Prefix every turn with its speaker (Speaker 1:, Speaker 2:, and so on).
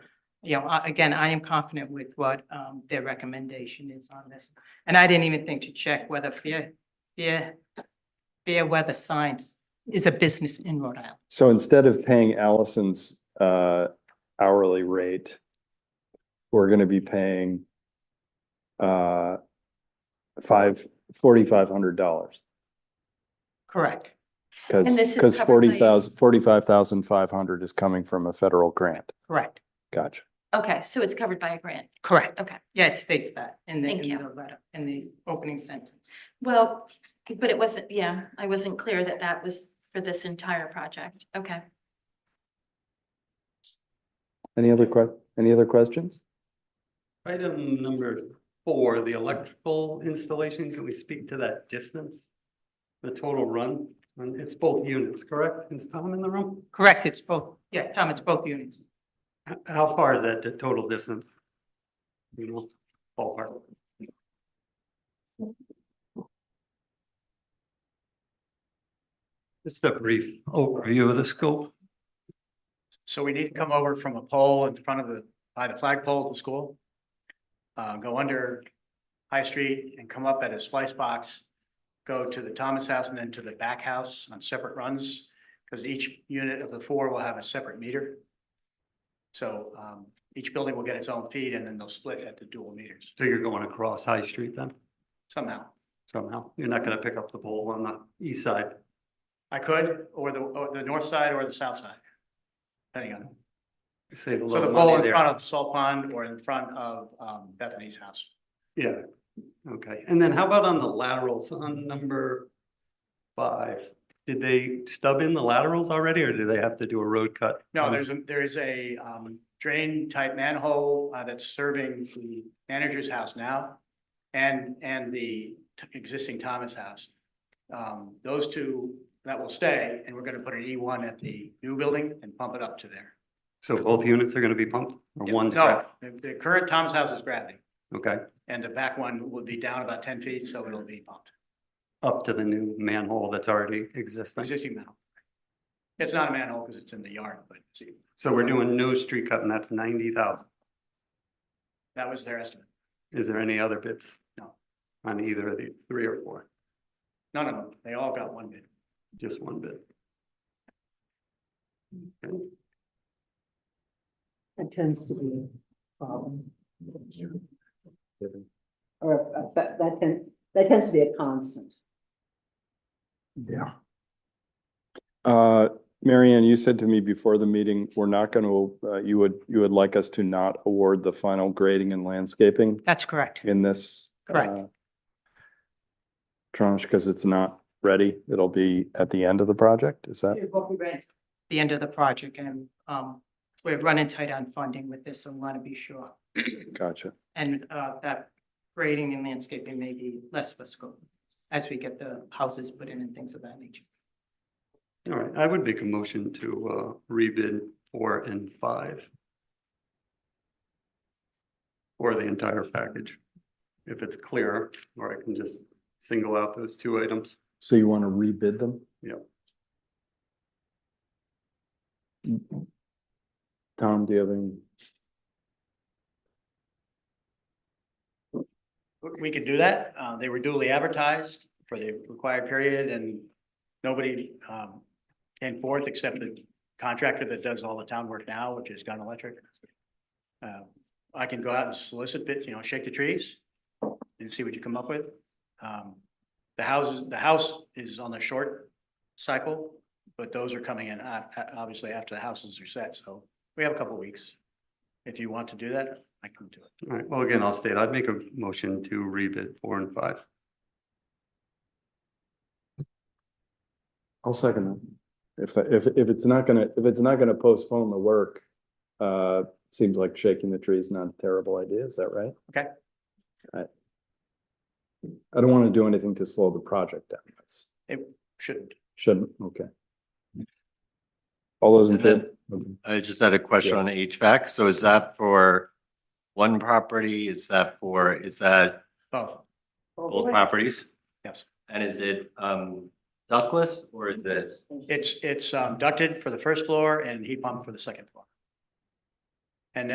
Speaker 1: you know, I- again, I am confident with what um their recommendation is on this. And I didn't even think to check whether fair, fair, fair weather signs is a business in Rhode Island.
Speaker 2: So instead of paying Allison's uh hourly rate, we're gonna be paying uh five, forty-five hundred dollars.
Speaker 1: Correct.
Speaker 2: Cause,
Speaker 3: And this is
Speaker 2: because
Speaker 3: covered by-
Speaker 2: forty thousand, forty-five thousand five hundred is coming from a federal grant.
Speaker 1: Correct.
Speaker 2: Gotcha.
Speaker 3: Okay, so it's covered by a grant.
Speaker 1: Correct.
Speaker 3: Okay.
Speaker 1: Yeah, it states that in the,
Speaker 3: Thank
Speaker 1: in
Speaker 3: you.
Speaker 1: the letter, in the opening sentence.
Speaker 3: Well, but it wasn't, yeah, I wasn't clear that that was for this entire project. Okay.
Speaker 2: Any other que, any other questions?
Speaker 4: Item number four, the electrical installation, can we speak to that distance? The total run, and it's both units, correct? Is Tom in the room?
Speaker 1: Correct, it's both, yeah, Tom, it's both units.
Speaker 4: H- How far is that the total distance? You know, ballpark. Just a brief overview of the scope.
Speaker 5: So we need to come over from a pole in front of the, by the flagpole at the school. Uh, go under High Street and come up at a splice box. Go to the Thomas House and then to the back house on separate runs, because each unit of the four will have a separate meter. So, um, each building will get its own feed and then they'll split at the dual meters
Speaker 4: So you're going across High Street then
Speaker 5: somehow.
Speaker 4: somehow? You're not going to pick up the pole on the east side?
Speaker 5: I could, or the, or the north side or the south side. Depending on,
Speaker 4: Save a
Speaker 5: so the
Speaker 4: little
Speaker 5: pole
Speaker 4: money
Speaker 5: in
Speaker 4: there.
Speaker 5: front of Salt Pond or in front of, um, Bethany's house.
Speaker 4: Yeah, okay. And then how about on the laterals on number five? Did they stub in the laterals already or do they have to do a road cut? Um,
Speaker 5: No, there's a, there is a um drain type manhole uh that's serving the manager's house now. And and the t- existing Thomas house. Um, those two, that will stay, and we're gonna put an E one at the new building and pump it up to there.
Speaker 4: So both units are gonna be pumped or one's
Speaker 5: No,
Speaker 4: cut?
Speaker 5: the the current Thomas house is gravity,
Speaker 4: Okay,
Speaker 5: and the back one will be down about ten feet, so it'll be pumped,
Speaker 4: up to the new manhole that's already existing.
Speaker 5: existing manhole. It's not a manhole because it's in the yard, but see,
Speaker 4: So we're doing no street cut and that's ninety thousand.
Speaker 5: that was their estimate.
Speaker 4: Is there any other bids?
Speaker 5: No.
Speaker 4: On either of the three or four,
Speaker 5: None of them, they all got one bid.
Speaker 4: just one bid? Okay.
Speaker 6: It tends to be a problem. Or uh, that, that tends, that tends to be a constant.
Speaker 2: Yeah. Uh, Mary Ann, you said to me before the meeting, we're not gonna, uh, you would, you would like us to not award the final grading and landscaping
Speaker 1: That's correct.
Speaker 2: in this.
Speaker 1: Correct.
Speaker 2: uh, Tranche, because it's not ready. It'll be at the end of the project, is that?
Speaker 1: The end of the project and um we're running tight on funding with this, so we want to be sure.
Speaker 2: Gotcha.
Speaker 1: And uh that grading and landscaping may be less of a scope as we get the houses put in and things of that nature.
Speaker 4: All right, I would make a motion to uh rebid four and five. Or the entire package, if it's clear, or I can just single out those two items.
Speaker 2: So you want to rebid them?
Speaker 4: Yep.
Speaker 2: Tom, do you have any?
Speaker 5: We could do that. Uh, they were duly advertised for the required period and nobody, um, came forth except the contractor that does all the town work now, which is Gun Electric. Uh, I can go out and solicit bids, you know, shake the trees and see what you come up with. Um, the houses, the house is on the short cycle, but those are coming in, uh, obviously after the houses are set, so we have a couple weeks. If you want to do that, I can do it.
Speaker 4: All right, well, again, I'll state, I'd make a motion to rebid four and five.
Speaker 2: I'll second that. If, if, if it's not gonna, if it's not gonna postpone the work, uh, seems like shaking the tree is not a terrible idea, is that right?
Speaker 5: Okay.
Speaker 2: I I don't want to do anything to slow the project down. That's-
Speaker 5: Shouldn't.
Speaker 2: Shouldn't, okay. All those in
Speaker 7: And then-
Speaker 2: favor?
Speaker 7: I just had a question on HVAC. So is that for one property? Is that for, is that
Speaker 5: Both,
Speaker 7: both properties?
Speaker 5: yes.
Speaker 7: And is it um ductless or is it?
Speaker 5: It's, it's um, ducted for the first floor and heat pump for the second floor.